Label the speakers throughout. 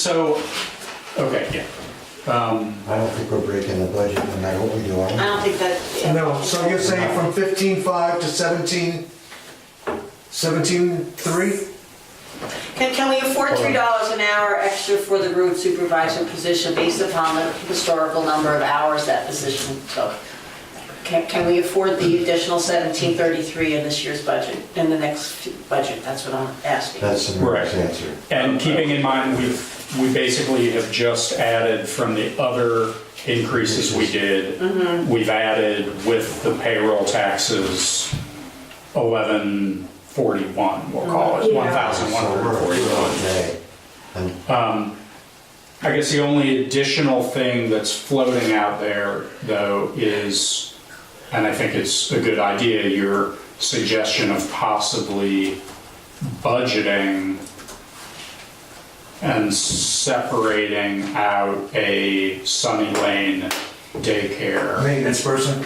Speaker 1: So, okay, yeah. Um,
Speaker 2: I don't think we're breaking the budget, no matter what we do, are
Speaker 3: I
Speaker 2: we?
Speaker 3: don't think that.
Speaker 4: No, so you're saying from fifteen five to seventeen, seventeen three?
Speaker 3: Can, can we afford three dollars an hour extra for the road supervisor position based upon the historical number of hours that position took? Can, can we afford the additional seventeen thirty-three in this year's budget, in the next few- budget? That's what I'm asking.
Speaker 2: That's the
Speaker 1: Right.
Speaker 2: mayor's answer.
Speaker 1: And keeping in mind, we've, we basically have just added from the other increases we did, we've added with the payroll taxes, eleven forty-one, we'll call it,
Speaker 3: Yeah.
Speaker 1: one
Speaker 2: So
Speaker 1: thousand one hundred
Speaker 2: we're good all
Speaker 1: forty-one.
Speaker 2: day. And
Speaker 1: I guess the only additional thing that's floating out there, though, is, and I think it's a good idea, your suggestion of possibly budgeting and separating out a Sunny Lane daycare
Speaker 4: Maintenance person?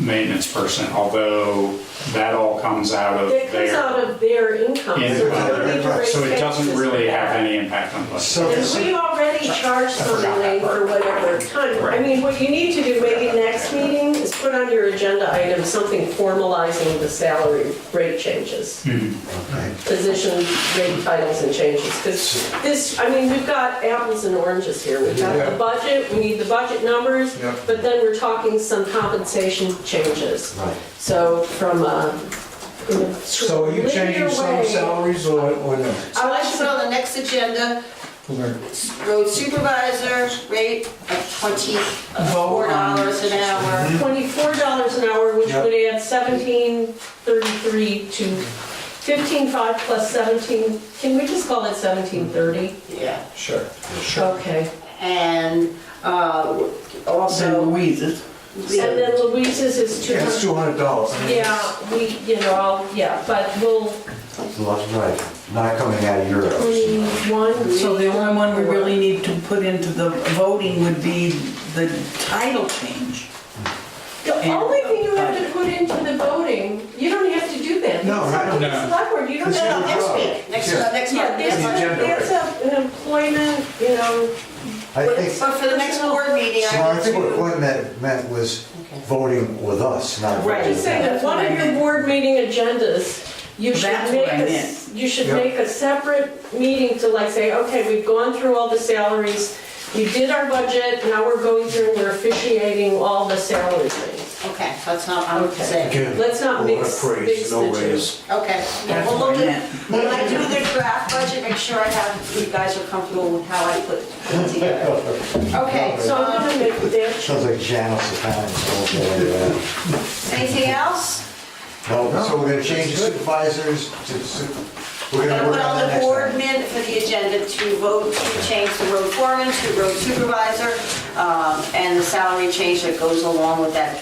Speaker 1: maintenance person, although that all comes out of
Speaker 5: It comes out
Speaker 1: their
Speaker 5: of their income.
Speaker 1: Yeah.
Speaker 5: so we don't need to raise
Speaker 1: So it doesn't
Speaker 5: taxes
Speaker 1: really
Speaker 5: for
Speaker 1: have
Speaker 5: that.
Speaker 1: any impact on budget.
Speaker 2: so,
Speaker 5: Because we already charged
Speaker 1: forgot that
Speaker 5: somebody for whatever time. I
Speaker 1: Right.
Speaker 5: mean, what you need to do maybe next meeting is put on your agenda item, something formalizing the salary rate changes.
Speaker 2: okay.
Speaker 5: Position rate titles and changes, because this, I mean, we've got apples and oranges here. We've got
Speaker 4: Yeah.
Speaker 5: the budget, we need the budget numbers,
Speaker 4: Yeah.
Speaker 5: but then we're talking some compensation changes.
Speaker 2: Right.
Speaker 5: So from a.
Speaker 4: So are you changing some salaries or, or no?
Speaker 3: I want you to put on the next agenda, road supervisor rate of twenty-four dollars an hour.
Speaker 5: Twenty-four dollars an hour, which
Speaker 4: Yep.
Speaker 5: would add seventeen thirty-three to fifteen-five plus seventeen, can we just call it seventeen thirty?
Speaker 3: Yeah,
Speaker 4: Sure.
Speaker 5: Okay.
Speaker 3: and, uh, also.
Speaker 6: Louise's.
Speaker 5: And then Louise's is two
Speaker 4: Yeah, it's
Speaker 5: hundred.
Speaker 4: two hundred dollars.
Speaker 5: Yeah, we, you know, I'll, yeah, but we'll,
Speaker 2: That's right, not coming out of your office.
Speaker 5: twenty-one,
Speaker 6: So the only one we really need to put into the voting would be the title change.
Speaker 5: the only thing you have to put into the voting, you don't have to do that.
Speaker 4: No,
Speaker 5: It's up to the
Speaker 1: no.
Speaker 5: Select board, you don't
Speaker 4: It's
Speaker 5: have
Speaker 4: your
Speaker 5: to.
Speaker 3: Next
Speaker 4: job.
Speaker 3: week, next,
Speaker 4: Yeah.
Speaker 3: uh, next
Speaker 5: Yeah,
Speaker 3: month,
Speaker 5: that's,
Speaker 3: next month.
Speaker 4: agenda, right.
Speaker 5: a- that's a- an employment, you know,
Speaker 2: I
Speaker 3: But
Speaker 2: think, so
Speaker 3: for the next board meeting,
Speaker 2: I
Speaker 3: I
Speaker 2: think what-
Speaker 3: need
Speaker 2: what that meant was voting with us, not
Speaker 5: Right,
Speaker 2: voting.
Speaker 5: just saying that one of your board meeting agendas, you should
Speaker 6: That's
Speaker 5: make
Speaker 6: what I
Speaker 5: a, s-
Speaker 6: meant.
Speaker 5: you should
Speaker 4: Yeah.
Speaker 5: make a separate meeting to like say, okay, we've gone through all the salaries, we did our budget, now we're going through and we're officiating all the salary things.
Speaker 3: to, okay, that's not, I'm
Speaker 5: Okay.
Speaker 3: saying,
Speaker 4: Again,
Speaker 5: Let's not
Speaker 4: a lot of
Speaker 5: mix-
Speaker 4: praise,
Speaker 5: mix
Speaker 4: no
Speaker 5: the two.
Speaker 4: raise.
Speaker 3: okay. Yeah,
Speaker 6: That's
Speaker 3: Well,
Speaker 6: what I
Speaker 3: look at-
Speaker 6: meant.
Speaker 3: When I do the draft budget, make sure I have, you guys are comfortable with how I put it together. Okay,
Speaker 5: So
Speaker 3: so
Speaker 5: I'm
Speaker 3: um,
Speaker 5: gonna make that,
Speaker 2: Sounds like Janice is kind of,
Speaker 3: anything else?
Speaker 2: no, so we're gonna change the supervisors to, su- we're
Speaker 3: I'm
Speaker 2: gonna
Speaker 3: gonna
Speaker 2: work
Speaker 3: put
Speaker 2: on
Speaker 3: on
Speaker 2: that
Speaker 3: the
Speaker 2: next
Speaker 3: board
Speaker 2: time.
Speaker 3: men for the agenda to vote to change the road foreman to road supervisor, um, and the salary change that goes along with that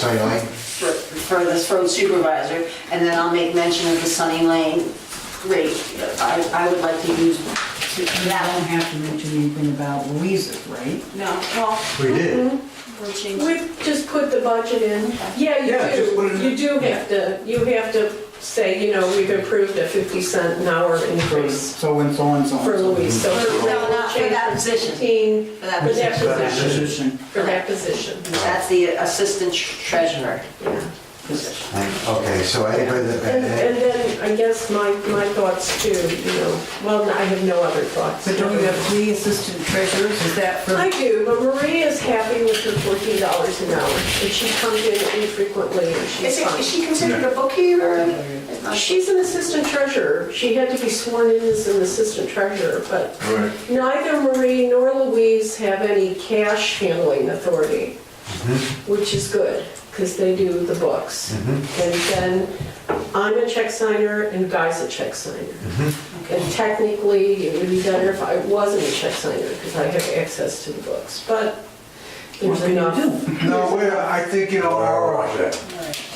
Speaker 2: Sunny Lane,
Speaker 3: for for this road supervisor, and then I'll make mention of the Sunny Lane rate. I, I would like to use
Speaker 6: I don't
Speaker 3: that.
Speaker 6: have to mention anything about Louise's, right?
Speaker 3: No, well,
Speaker 2: we did.
Speaker 3: we'll change.
Speaker 5: we just put the budget in. Yeah,
Speaker 4: Yeah, just put
Speaker 5: you
Speaker 4: it in.
Speaker 5: do, you do have to, you have to say, you know, we've approved a fifty cent an hour increase
Speaker 6: So and so and so.
Speaker 5: for Louise, so.
Speaker 3: For- no, not for that position.
Speaker 5: Fifteen,
Speaker 3: For that
Speaker 5: for that
Speaker 3: position.
Speaker 5: position,
Speaker 6: Position.
Speaker 5: for that position.
Speaker 3: That's the assistant treasurer.
Speaker 6: Position.
Speaker 2: And- Okay, so anybody
Speaker 5: And,
Speaker 2: that,
Speaker 5: and then I guess my, my thoughts too, you know, well, I have no other thoughts.
Speaker 6: But don't you have three assistant treasurers, is that for?
Speaker 5: I do, but Maria is happy with her fourteen dollars an hour, and she comes in infrequently, and she's
Speaker 3: Is it- is
Speaker 5: fine.
Speaker 3: she considered a bookkeeper?
Speaker 5: She's an assistant treasurer, she had to be sworn in as an assistant treasurer, but
Speaker 4: Mm-hmm.
Speaker 5: neither Marie nor Louise have any cash handling authority, which is good, because they do the books. And then I'm a check signer and Guy's a check signer. And technically, it would be better if I wasn't a check signer, because I have access to the books, but
Speaker 6: What
Speaker 5: there's
Speaker 6: can you
Speaker 5: enough,
Speaker 6: do?
Speaker 4: No, we're, I think, you know, our,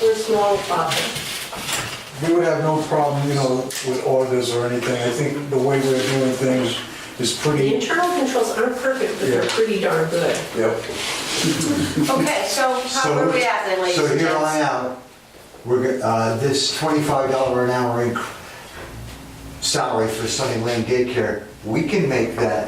Speaker 5: we're small profit.
Speaker 4: we would have no problem, you know, with orders or anything. I think the way we're doing things is
Speaker 5: The
Speaker 4: pretty,
Speaker 5: internal controls aren't perfect, but they're
Speaker 4: Yeah.
Speaker 5: pretty darn good.
Speaker 4: yeah.
Speaker 3: Okay, so how where are we at then, ladies
Speaker 2: so
Speaker 3: and
Speaker 2: here
Speaker 3: gents?
Speaker 2: on out, we're, go- uh, this twenty-five dollar an hour inc- salary for Sunny Lane daycare, we can make that